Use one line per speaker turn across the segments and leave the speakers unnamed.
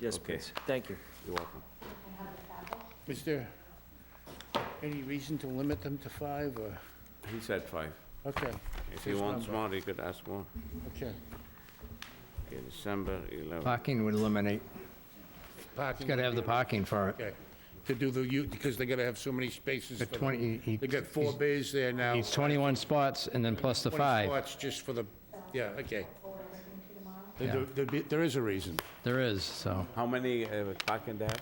Yes,
Okay.
please. Thank you.
You're welcome.
Is there any reason to limit them to five, or,
He said five.
okay,
If he
His
wants
number.
more, he could ask more.
okay.
Okay, December 11.
Parking would eliminate,
Parking.
it's got to have the parking for it.
Okay, to do the, u- because they gotta have so many spaces.
The
for the-
20 he-
They got four
he's-
bays there now.
It's 21 spots and then plus the
20
five.
spots just for the, yeah, okay.
Yeah.
There- there'd be- There is a reason.
There is, so.
How many uh, parking there?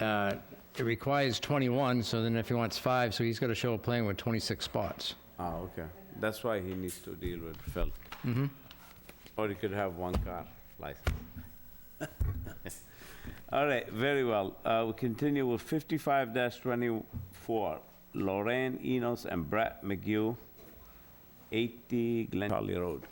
uh, It requires 21, so then if he wants five, so he's got to show a plan with 26 spots.
Ah, okay. That's why he needs to deal with Phil. Mm-hmm. Or he could have one car license. All right, very well. Uh, We continue with 55-24, Lorraine Enos and Brett McGill, 80 Glen Charlie Road.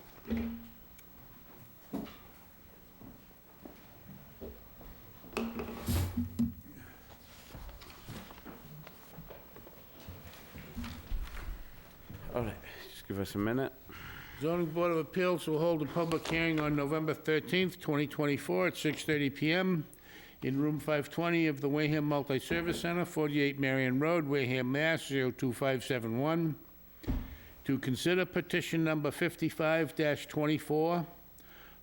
All right, just give us a minute.
Zoning Board of Appeals will hold a public hearing on November 13th, 2024, at 6:30 PM in Room 520 of the Wareham Multi-Service Center, 48 Marion Road, Wareham, Mass. 02571, to consider petition number 55-24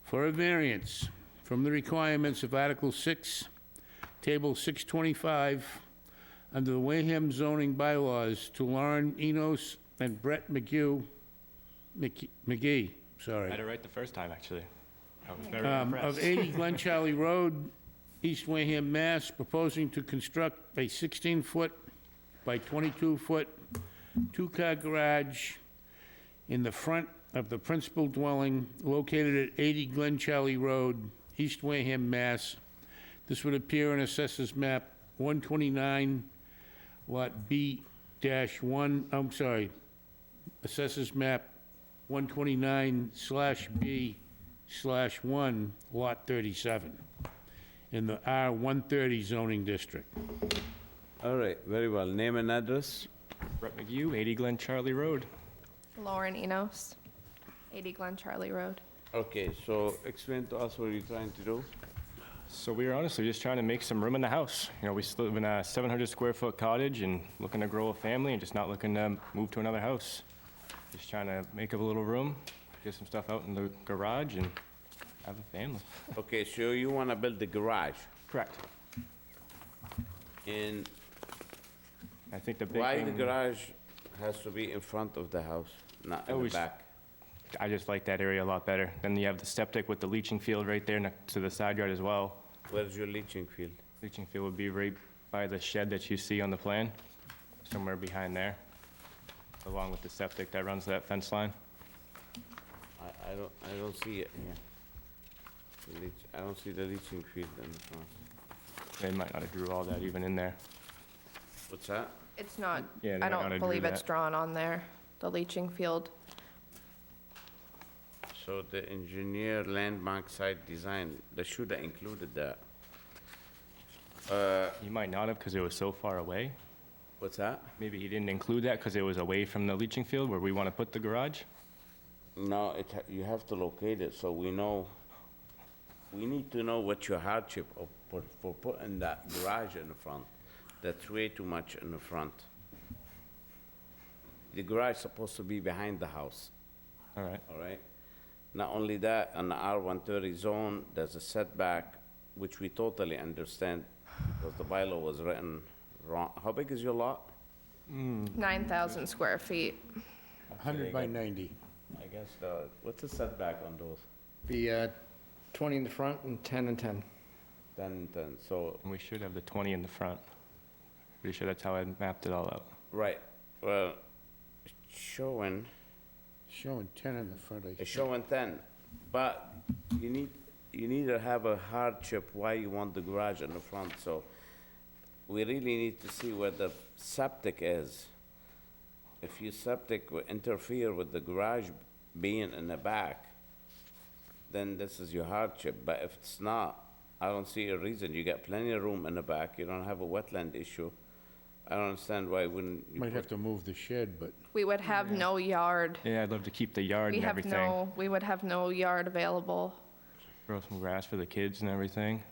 for a variance from the requirements of Article 6, Table 625, under the Wareham zoning bylaws to Lauren Enos and Brett McGee, Mc- McGee,
I had
sorry,
it right the first time, actually. I was very
um, of
impressed.
80 Glen Charlie Road, East Wareham, Mass., proposing to construct a 16-foot by 22-foot two-car garage in the front of the principal dwelling located at 80 Glen Charlie Road, East Wareham, Mass. This would appear in Assessors Map 129, Lot B dash one, I'm sorry, Assessors Map 129 slash B slash 1, Lot 37, in the R130 zoning district.
All right, very well. Name and address?
Brett McGee, 80 Glen Charlie Road.
Lauren Enos, 80 Glen Charlie Road.
Okay, so explain to us what you're trying to do.
So we were honestly just trying to make some room in the house. You know, we still live in a 700 square foot cottage and looking to grow a family and just not looking to move to another house. Just trying to make up a little room, get some stuff out in the garage and have a family.
Okay, so you want to build the garage,
Correct.
and
I think the big
why the
thing,
garage has to be in front of the house, not in the
Always-
back?
I just like that area a lot better. Then you have the septic with the leaching field right there next to the side yard as well.
Where's your leaching field?
Leaching field would be right by the shed that you see on the plan, somewhere behind there, along with the septic that runs that fence line.
I, I don't, I don't see it here. The leach- I don't see the leaching field in the front.
They might not have drew all that even in there.
What's that?
It's not,
Yeah,
I
they're not gonna do
don't believe it's
that.
drawn on there, the leaching field.
So the engineer landmark site design, they should have included that. Uh,
You might not have because it was so far away.
what's that?
Maybe he didn't include that because it was away from the leaching field where we want to put the garage.
No, it, ha- you have to locate it, so we know, we need to know what your hardship of, put- for putting that garage in the front. That's way too much in the front. The garage supposed to be behind the house,
All right,
all right? Not only that, on the R one thirty zone, there's a setback, which we totally understand, because the bylaw was written wrong. How big is your lot?
Mm-hmm.
9,000 square feet.
100 by 90.
I guess, the what's the setback on those?
Be uh, 20 in the front and 10 and 10.
Ten, ten, so
and we should have the 20 in the front. Pretty sure that's how I mapped it all out.
Right, well, it's showing,
Showing 10 in the front, I
it's showing ten, but you need, you need to have a hardship why you want the garage in the front, so we really need to see where the septic is. If your septic will interfere with the garage being in the back, then this is your hardship, but if it's not, I don't see a reason, you got plenty of room in the back, you don't have a wetland issue. I don't understand why wouldn't you
Might
put
have to move the shed, but
We would have no yard.
Yeah, I'd love to keep the yard
We
and
have
everything.
no, we would have no yard available
grow some grass for the kids and everything.